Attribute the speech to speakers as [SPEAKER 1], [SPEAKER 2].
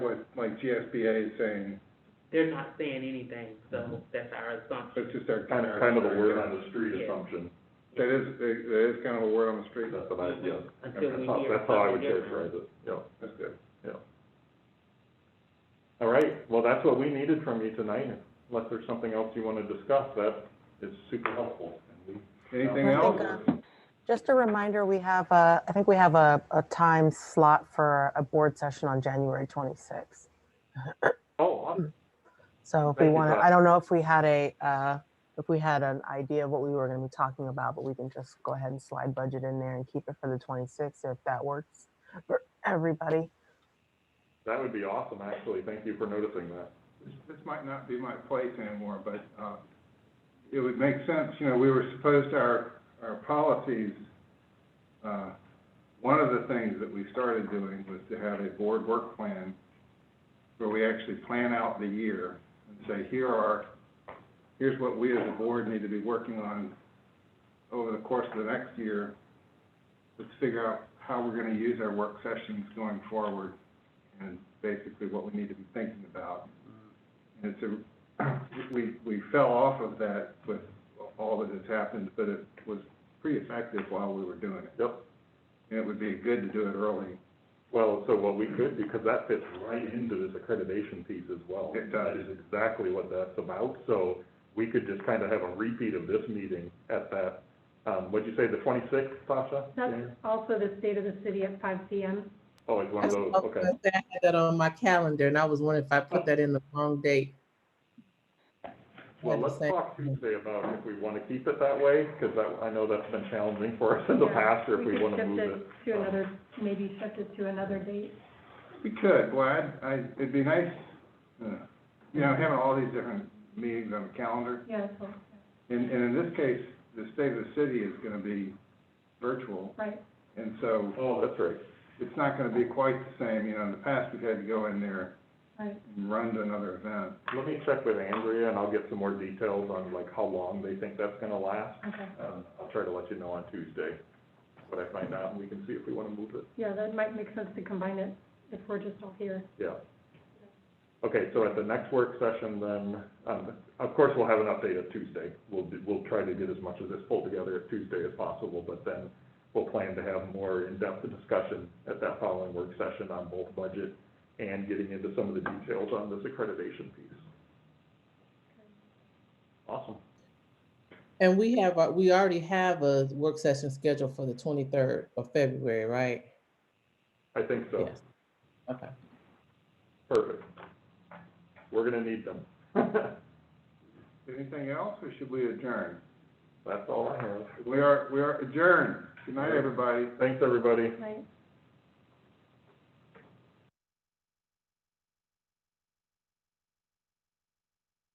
[SPEAKER 1] like GSBA saying,
[SPEAKER 2] They're not saying anything, so that's our assumption.
[SPEAKER 1] that's just our.
[SPEAKER 3] Kind of, kind of a word on the street
[SPEAKER 2] Yeah.
[SPEAKER 3] assumption,
[SPEAKER 1] That is, that that is kind of a word on the street,
[SPEAKER 3] that's what I, yeah.
[SPEAKER 2] Until we
[SPEAKER 3] That's how-
[SPEAKER 2] hear
[SPEAKER 3] That's how I would
[SPEAKER 2] something different.
[SPEAKER 3] characterize it, yeah.
[SPEAKER 1] that's good.
[SPEAKER 3] All right, well, that's what we needed from you tonight, unless there's something else you wanna discuss, that is super helpful. And we-
[SPEAKER 1] Anything
[SPEAKER 4] I
[SPEAKER 1] else?
[SPEAKER 4] think, Just a reminder, we have a, I think we have a, a time slot for a board session on January 26th.
[SPEAKER 3] Oh, awesome.
[SPEAKER 4] So if
[SPEAKER 3] Thank
[SPEAKER 4] we
[SPEAKER 3] you,
[SPEAKER 4] want to,
[SPEAKER 3] Pat.
[SPEAKER 4] I don't know if we had a, uh, if we had an idea of what we were going to be talking about, but we can just go ahead and slide budget in there and keep it for the 26th if that works for everybody.
[SPEAKER 3] that would be awesome, actually, thank you for noticing that.
[SPEAKER 1] This- This might not be my place anymore, but, uh, it would make sense, you know, we were supposed, our, our policies, uh, one of the things that we started doing was to have a board work plan where we actually plan out the year and say, here are, here's what we as a board need to be working on over the course of the next year. Let's figure out how we're gonna use our work sessions going forward and basically what we need to be thinking about. And so, we, we fell off of that with all that has happened, but it was pretty effective while we were doing it.
[SPEAKER 3] Yep,
[SPEAKER 1] And it would be good to do it early.
[SPEAKER 3] well, so what we could, because that fits right into this accreditation piece as well.
[SPEAKER 1] It
[SPEAKER 3] That
[SPEAKER 1] does.
[SPEAKER 3] is exactly what that's about, so we could just kinda have a repeat of this meeting at that, um, what'd you say, the twenty-sixth, Sasha?
[SPEAKER 5] That's
[SPEAKER 3] January?
[SPEAKER 5] also the state of the city at five P M.
[SPEAKER 3] Oh, it's one
[SPEAKER 6] I
[SPEAKER 3] of those,
[SPEAKER 6] was
[SPEAKER 3] okay.
[SPEAKER 6] gonna say I had that on my calendar and I was wondering if I put that in the wrong date.
[SPEAKER 3] Well,
[SPEAKER 6] Yeah, the
[SPEAKER 3] let's
[SPEAKER 6] same.
[SPEAKER 3] talk Tuesday about if we want to keep it that way, because I, I know that's been challenging for us in the
[SPEAKER 5] Yeah,
[SPEAKER 3] past, or if we want to move it.
[SPEAKER 5] could shift it to another, maybe shift it to another date.
[SPEAKER 1] We could, well, I'd, I, it'd be nice, uh, you know, having all these different meetings on the calendar.
[SPEAKER 5] Yeah, so,
[SPEAKER 1] And, and in this case, the state of the city is gonna be virtual,
[SPEAKER 5] right.
[SPEAKER 1] and so
[SPEAKER 3] Oh, that's right.
[SPEAKER 1] it's not gonna be quite the same, you know, in the past, we've had to go in there
[SPEAKER 5] Right.
[SPEAKER 1] and run to another event.
[SPEAKER 3] Let me check with Andrea, and I'll get some more details on like how long they think that's going to last.
[SPEAKER 5] Okay.
[SPEAKER 3] Um, I'll try to let you know on Tuesday what I find out, and we can see if we want to move it,
[SPEAKER 5] Yeah, that might make sense to combine it if we're just all here.
[SPEAKER 3] yeah. Okay, so at the next work session then, um, of course, we'll have an update at Tuesday. We'll, do- we'll try to get as much of this pulled together at Tuesday as possible, but then we'll plan to have more in-depth discussion at that following work session on both budget and getting into some of the details on this accreditation piece. Awesome.
[SPEAKER 6] And we have, a- we already have a work session scheduled for the twenty-third of February, right?
[SPEAKER 3] I think so.
[SPEAKER 6] Yes. Okay.
[SPEAKER 3] Perfect. We're gonna need them.
[SPEAKER 1] Anything else, or should we adjourn?
[SPEAKER 3] That's all I have.
[SPEAKER 1] We are, we are adjourned. Good night, everybody.
[SPEAKER 3] Thanks, everybody.
[SPEAKER 5] Right.